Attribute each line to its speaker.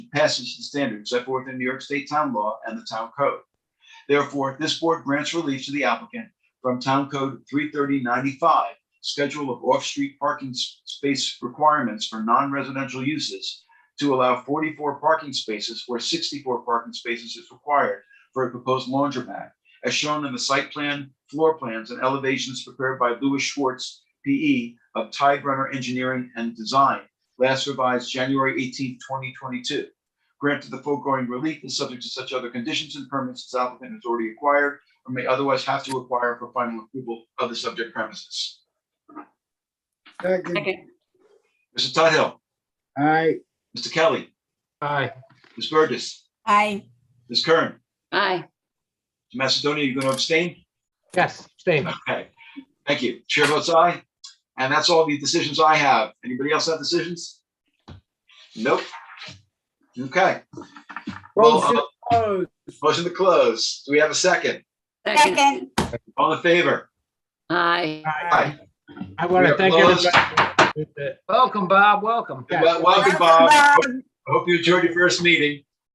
Speaker 1: passage and standards set forth in New York State Town Law and the Town Code. Therefore, this board grants relief to the applicant from Town Code three thirty ninety-five, schedule of off-street parking s- space requirements for non-residential uses to allow forty-four parking spaces where sixty-four parking spaces is required for a proposed laundromat, as shown in the site plan, floor plans, and elevations prepared by Louis Schwartz, P.E. of Tide Runner Engineering and Design, last revised January 18, twenty twenty-two. Granted the foregoing relief is subject to such other conditions and permits as applicant has already acquired or may otherwise have to acquire for final approval of the subject premises.
Speaker 2: Second.
Speaker 3: Second.
Speaker 1: Mr. Tuthill,
Speaker 2: Aye.
Speaker 1: Mr. Kelly,
Speaker 4: aye,
Speaker 1: Ms. Burgess,
Speaker 3: Aye.
Speaker 1: Ms. Kern,
Speaker 3: Aye.
Speaker 1: Mr. Macedonia, you going to abstain?
Speaker 4: yes, same.
Speaker 1: Okay, thank you. Chair votes aye. And that's all the decisions I have. Anybody else have decisions? Nope. Okay, Well,
Speaker 2: Motion
Speaker 1: uh,
Speaker 2: closed.
Speaker 1: motion to close. Do we have a second?
Speaker 3: Second.
Speaker 5: Second.
Speaker 1: All in favor?
Speaker 3: Aye.
Speaker 4: I
Speaker 1: Aye.
Speaker 4: want
Speaker 1: We
Speaker 4: to
Speaker 1: are
Speaker 4: thank
Speaker 1: closed.
Speaker 4: everybody.
Speaker 6: Welcome, Bob, welcome.
Speaker 4: Yes.
Speaker 1: Wel- Welcome, Bob. I hope you enjoyed your first meeting.